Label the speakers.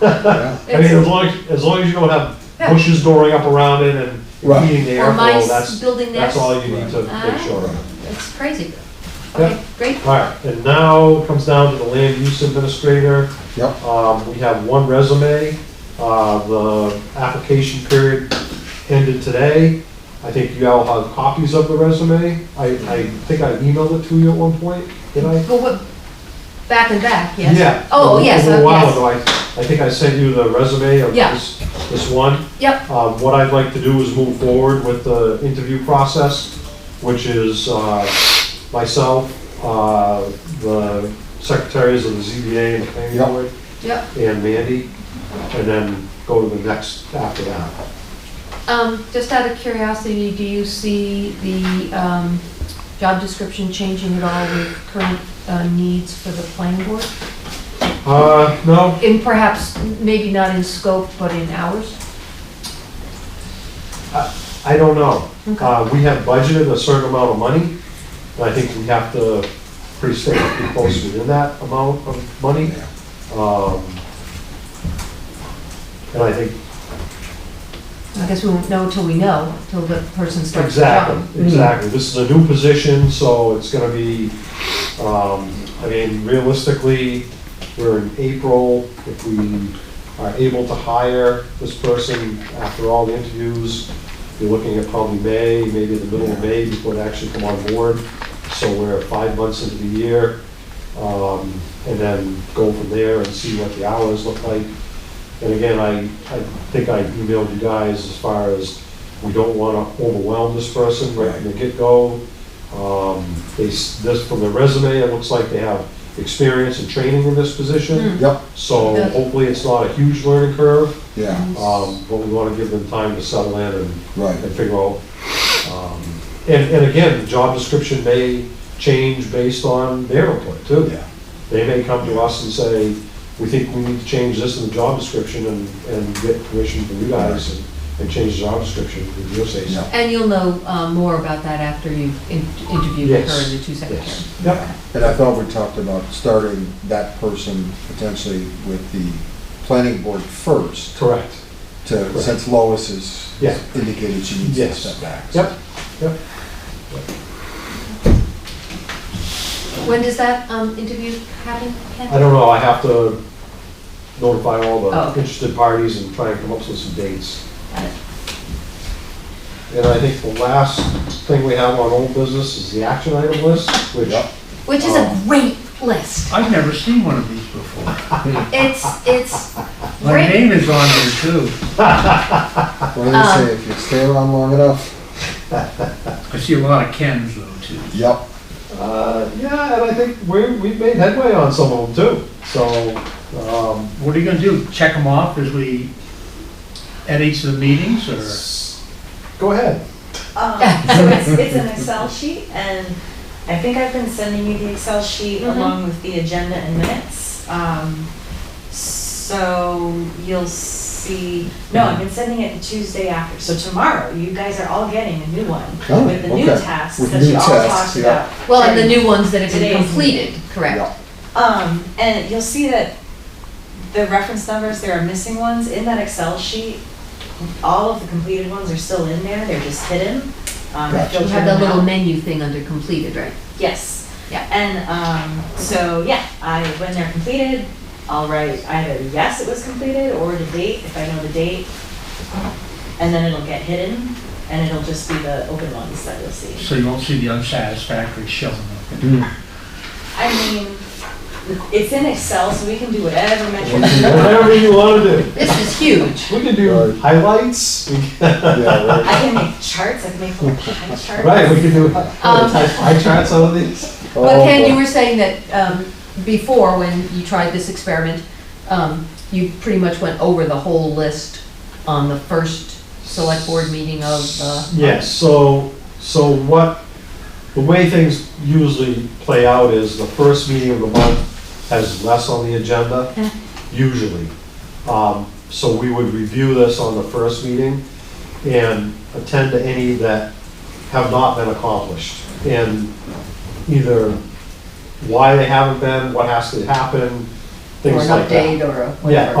Speaker 1: I mean, as long, as as long as you don't have bushes growing up around it and
Speaker 2: Right.
Speaker 1: impeding the
Speaker 3: Or
Speaker 1: airflow,
Speaker 3: mice Ah.
Speaker 1: that's,
Speaker 3: building
Speaker 1: that's
Speaker 3: nests.
Speaker 1: all you need to
Speaker 3: Right.
Speaker 1: make sure of.
Speaker 3: It's crazy.
Speaker 1: Yeah.
Speaker 3: Okay, great.
Speaker 1: All right, and now it comes down to the land use administrator.
Speaker 2: Yep.
Speaker 1: Um, we have one resume, uh, the application period ended today. I think you all have copies of the resume. I, I think I emailed it to you at one point, did I?
Speaker 3: Well, what, back and back, yes?
Speaker 1: Yeah.
Speaker 3: Oh,
Speaker 1: a-
Speaker 3: yes,
Speaker 1: A little
Speaker 3: uh,
Speaker 1: while
Speaker 3: yes.
Speaker 1: ago, I, I think I sent you the resume of
Speaker 3: Yeah.
Speaker 1: this, this one.
Speaker 3: Yep,
Speaker 1: Um, What I'd like to do is move forward with the interview process, which is uh, myself, uh, the secretaries of the ZBA and the planning
Speaker 2: Yep.
Speaker 1: board,
Speaker 3: yep.
Speaker 1: and Mandy, and then go to the next after that.
Speaker 3: Um, just out of curiosity, do you see the, um, job description changing at all with current, uh, needs for the planning board?
Speaker 1: Uh, No,
Speaker 3: In perhaps, maybe not in scope, but in hours?
Speaker 1: I don't know.
Speaker 3: Okay.
Speaker 1: Uh, We have budgeted a certain amount of money, and I think we have to pretty stay pretty close within that amount of money. Um, And I think
Speaker 3: I guess we won't know till we know, till the person starts the job.
Speaker 1: Exactly, exactly. This is a new position, so it's gonna be, um, I mean, realistically, we're in April. If we are able to hire this person after all the interviews, you're looking at probably May, maybe the middle of May before they actually come on board. So we're five months into the year, um, and then go from there and see what the hours look like. And again, I, I think I emailed you guys as far as, we don't want to overwhelm this person right from the get-go. Um, They, s- this, from the resume, it looks like they have experience and training in this position.
Speaker 3: Hmm.
Speaker 2: Yep,
Speaker 1: So
Speaker 3: Good.
Speaker 1: hopefully it's not a huge learning curve,
Speaker 2: yeah,
Speaker 3: Hmm.
Speaker 1: um, but we want to give them time to settle in and
Speaker 2: right,
Speaker 1: and figure out. um, And, and again, the job description may change based on their input too.
Speaker 2: yeah,
Speaker 1: They may come to us and say, we think we need to change this in the job description and, and get permission from you guys and- and change the job description, and you'll say so.
Speaker 2: Yeah.
Speaker 3: And you'll know uh, more about that after you've in- interviewed her
Speaker 1: Yes.
Speaker 3: and the two secretaries.
Speaker 1: Yep,
Speaker 2: yeah. And I thought we talked about starting that person potentially with the planning board first,
Speaker 1: correct.
Speaker 2: to, since Lois has
Speaker 1: Yeah.
Speaker 2: indicated she needs to
Speaker 1: Yes.
Speaker 2: step back.
Speaker 1: Yep, yep.
Speaker 3: When does that um, interview happen? Ken?
Speaker 1: I don't know, I have to notify all
Speaker 3: Oh.
Speaker 1: the interested parties and try and come up with some dates.
Speaker 3: Got it.
Speaker 1: And I think the last thing we have on old business is the action item list, which
Speaker 2: Yep.
Speaker 3: Which is a
Speaker 2: Oh.
Speaker 3: great list.
Speaker 4: I've never seen one of these before.
Speaker 3: It's, it's
Speaker 4: My
Speaker 3: great.
Speaker 4: name is on there too.
Speaker 2: What do they say,
Speaker 3: Um,
Speaker 2: if you stay around long enough?
Speaker 4: I see a lot of Kens though too.
Speaker 2: Yep,
Speaker 1: Uh, yeah, and I think we, we've made headway on some of them too, so, um,
Speaker 4: What are you gonna do? Check them off as we, at each of the meetings or?
Speaker 1: go ahead.
Speaker 5: Um, So it's, it's an Excel sheet, and I think I've been sending you the Excel sheet
Speaker 3: Mhm.
Speaker 5: along with the agenda and minutes. Um, So you'll see, no, I've been sending it Tuesday after, so tomorrow, you guys are all getting a new
Speaker 2: Oh,
Speaker 5: one with the new
Speaker 2: okay.
Speaker 5: tasks
Speaker 2: With
Speaker 5: that
Speaker 2: new
Speaker 5: you all
Speaker 2: tasks,
Speaker 5: talked
Speaker 2: yeah.
Speaker 5: about.
Speaker 3: Well, and the new ones that have been
Speaker 5: Today's-
Speaker 3: completed, correct?
Speaker 2: yep,
Speaker 5: Um, and you'll see that the reference numbers, there are missing ones in that Excel sheet. All of the completed ones are still in there, they're just hidden. Um, I
Speaker 2: Gotcha.
Speaker 5: filtered
Speaker 3: You have that
Speaker 5: them
Speaker 3: little
Speaker 5: out.
Speaker 3: menu thing under completed, right?
Speaker 5: Yes.
Speaker 3: Yeah.
Speaker 5: And um, so, yeah, I, when they're completed, I'll write either yes, it was completed, or the date, if I know the date. And then it'll get hidden, and it'll just be the open ones that you'll see.
Speaker 4: So you won't see the unsatisfactory showing up.
Speaker 5: I mean, it's in Excel, so we can do whatever metric.
Speaker 1: Whatever you wanna do.
Speaker 3: This is huge.
Speaker 1: We can do
Speaker 2: Right.
Speaker 1: highlights, we can-
Speaker 2: yeah,
Speaker 5: I
Speaker 2: right.
Speaker 5: can make charts, I can make little pie charts.
Speaker 1: right, we can do high charts on these.
Speaker 2: Oh,
Speaker 3: Um, But Ken,
Speaker 2: boy.
Speaker 3: you were saying that um, before, when you tried this experiment, um, you pretty much went over the whole list on the first select board meeting of uh, the.
Speaker 1: Yes, so, so what, the way things usually play out is the first meeting of the month has less on the agenda,
Speaker 3: Yeah.
Speaker 1: usually. Um, So we would review this on the first meeting and attend to any that have not been accomplished. And either why they haven't been, what has to happen,
Speaker 3: Or
Speaker 1: things
Speaker 3: an
Speaker 1: like that.
Speaker 3: update or a whatever.